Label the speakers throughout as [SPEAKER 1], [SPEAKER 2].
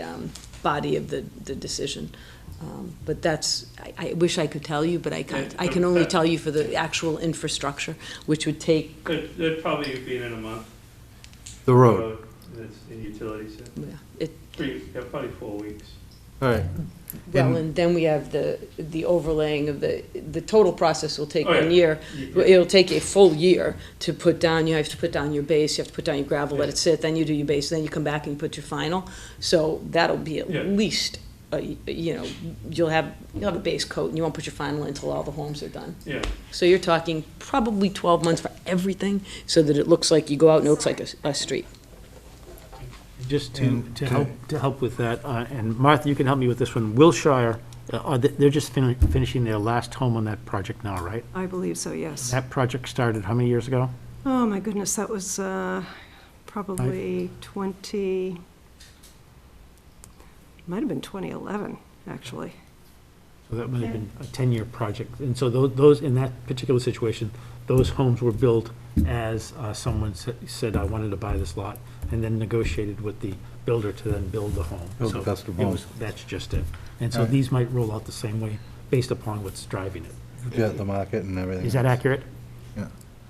[SPEAKER 1] um, body of the, the decision. Um, But that's, I, I wish I could tell you, but I can't. I can only tell you for the actual infrastructure, which would take,
[SPEAKER 2] Could, that'd probably be in a month.
[SPEAKER 3] The road.
[SPEAKER 2] That's in utilities, yeah.
[SPEAKER 1] yeah, it,
[SPEAKER 2] three, yeah, probably four weeks.
[SPEAKER 3] All right.
[SPEAKER 1] well,
[SPEAKER 3] And-
[SPEAKER 1] and then we have the, the overlaying of the, the total process will take
[SPEAKER 2] Oh, yeah.
[SPEAKER 1] one year.
[SPEAKER 2] You- you-
[SPEAKER 1] It'll take a full year to put down, you have to put down your base, you have to put down your gravel, let it sit, then you do your base, then you come back and you put your final. So that'll be at
[SPEAKER 2] Yeah.
[SPEAKER 1] least, uh, you know, you'll have, you'll have a base coat and you won't put your final until all the homes are done.
[SPEAKER 2] Yeah,
[SPEAKER 1] So you're talking probably twelve months for everything, so that it looks like you go out and it looks like a, a street.
[SPEAKER 4] Just to,
[SPEAKER 3] And
[SPEAKER 4] to
[SPEAKER 3] to-
[SPEAKER 4] help, to help with that, uh, and Martha, you can help me with this one, Wilshire, uh, are they- they're just fin- finishing their last home on that project now, right?
[SPEAKER 5] I believe so, yes.
[SPEAKER 4] That project started how many years ago?
[SPEAKER 5] Oh, my goodness, that was uh, probably 20, might have been 2011, actually.
[SPEAKER 4] So that might have been a 10-year project. And so tho- those, in that particular situation, those homes were built as uh, someone sa- said, I wanted to buy this lot, and then negotiated with the builder to then build the home.
[SPEAKER 3] Build the
[SPEAKER 4] So
[SPEAKER 3] custom
[SPEAKER 4] it
[SPEAKER 3] home.
[SPEAKER 4] was- That's just it. And so
[SPEAKER 3] Alright.
[SPEAKER 4] these might roll out the same way, based upon what's driving it.
[SPEAKER 3] Yeah, the market and everything.
[SPEAKER 4] Is that accurate?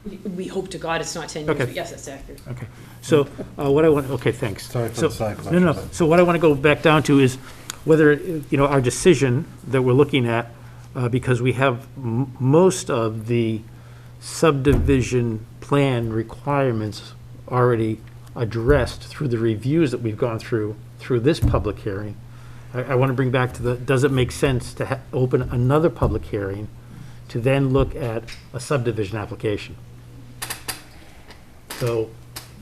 [SPEAKER 1] We- We hope to God it's not ten years,
[SPEAKER 4] Okay.
[SPEAKER 1] but yes, that's accurate.
[SPEAKER 4] Okay, so uh, what I want, okay, thanks.
[SPEAKER 3] Sorry for
[SPEAKER 4] So-
[SPEAKER 3] the side
[SPEAKER 4] No, no, no.
[SPEAKER 3] questions.
[SPEAKER 4] so what I want to go back down to is whether, you know, our decision that we're looking at, uh, because we have m- most of the subdivision plan requirements already addressed through the reviews that we've gone through, through this public hearing. I, I want to bring back to the, does it make sense to ha- open another public hearing to then look at a subdivision application? So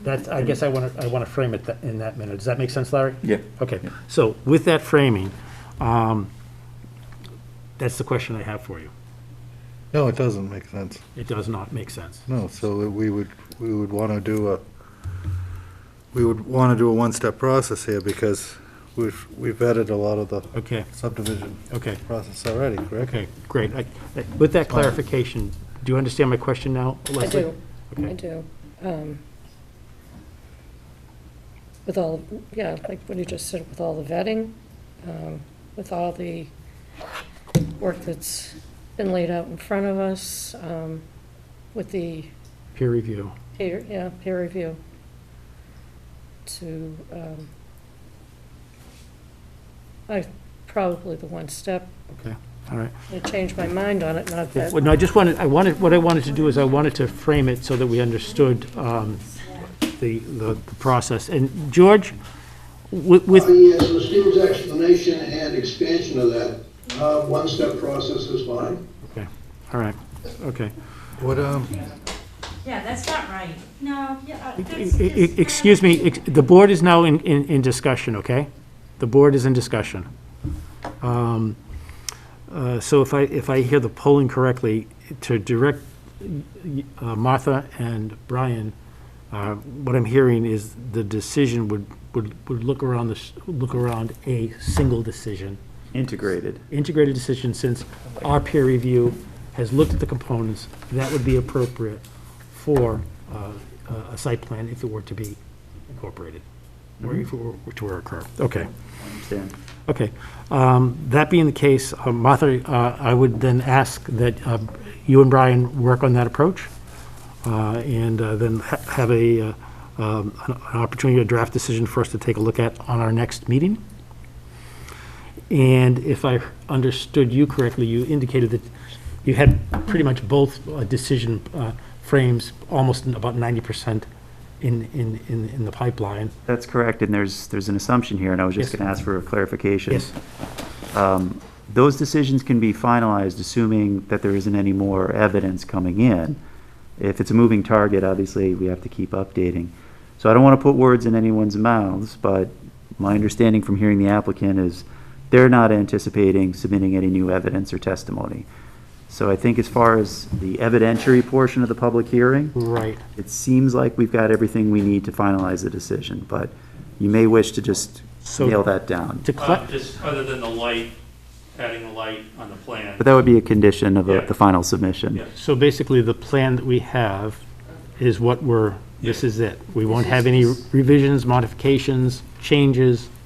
[SPEAKER 4] that's, I guess I want to, I want to frame it tha- in that manner. Does that make sense, Larry?
[SPEAKER 6] Yeah.
[SPEAKER 4] Okay, so with that framing, um, that's the question I have for you.
[SPEAKER 3] No, it doesn't make sense.
[SPEAKER 4] It does not make sense.
[SPEAKER 3] No, so we would, we would want to do a, we would want to do a one-step process here because we've, we've vetted a lot of the
[SPEAKER 4] Okay,
[SPEAKER 3] subdivision
[SPEAKER 4] okay,
[SPEAKER 3] process already, correct?
[SPEAKER 4] okay, great. I- I- With that clarification, do you understand my question now,
[SPEAKER 7] I
[SPEAKER 4] Leslie?
[SPEAKER 7] do, I
[SPEAKER 4] Okay.
[SPEAKER 7] do. Um, With all, yeah, like what you just said, with all the vetting, um, with all the work that's been laid out in front of us, um, with the
[SPEAKER 4] Peer review.
[SPEAKER 7] peer, yeah, peer review to, um, I, probably the one step,
[SPEAKER 4] Okay, all right.
[SPEAKER 7] I changed my mind on it, not
[SPEAKER 4] Yeah,
[SPEAKER 7] that.
[SPEAKER 4] Well, no, I just wanted, I wanted, what I wanted to do is I wanted to frame it so that we understood um, the, the the process. And George, with, with-
[SPEAKER 8] The, uh, Steve's explanation and expansion of that, uh, one-step process is fine.
[SPEAKER 4] okay, all right, okay.
[SPEAKER 3] What, um,
[SPEAKER 9] Yeah, that's not right. No, yeah. uh,
[SPEAKER 4] E-
[SPEAKER 9] that's
[SPEAKER 4] e-
[SPEAKER 9] just-
[SPEAKER 4] Excuse me, ex- the board is now in, in, in discussion, okay? The board is in discussion. Um, uh, So if I, if I hear the polling correctly, to direct uh, Martha and Brian, uh, what I'm hearing is the decision would, would, would look around this, look around a single decision
[SPEAKER 6] Integrated.
[SPEAKER 4] integrated decision, since our peer review has looked at the components, that would be appropriate for uh, a a site plan if it were to be incorporated, or if it were to occur. Okay,
[SPEAKER 6] Understand?
[SPEAKER 4] okay. Um, That being the case, uh, Martha, uh, I would then ask that uh, you and Brian work on that approach, uh, and uh, then ha- have a, uh, um, an an opportunity, a draft decision for us to take a look at on our next meeting. And if I understood you correctly, you indicated that you had pretty much both uh, decision uh, frames, almost in about 90% in, in, in in the pipeline.
[SPEAKER 6] That's correct, and there's, there's an assumption here, and I was just
[SPEAKER 4] Yes.
[SPEAKER 6] going to ask for a clarification.
[SPEAKER 4] Yes,
[SPEAKER 6] Um, Those decisions can be finalized assuming that there isn't any more evidence coming in. If it's a moving target, obviously, we have to keep updating. So I don't want to put words in anyone's mouths, but my understanding from hearing the applicant is they're not anticipating submitting any new evidence or testimony. So I think as far as the evidentiary portion of the public hearing,
[SPEAKER 4] right.
[SPEAKER 6] it seems like we've got everything we need to finalize the decision, but you may wish to just
[SPEAKER 4] So-
[SPEAKER 6] nail that down.
[SPEAKER 4] To
[SPEAKER 2] Uh,
[SPEAKER 4] cla-
[SPEAKER 2] just other than the light, adding the light on the plan.
[SPEAKER 6] But that would be a condition of uh,
[SPEAKER 2] Yeah.
[SPEAKER 6] the final submission.
[SPEAKER 2] Yeah.
[SPEAKER 4] So basically, the plan that we have is what we're, this is it. We won't have any revisions, modifications, changes,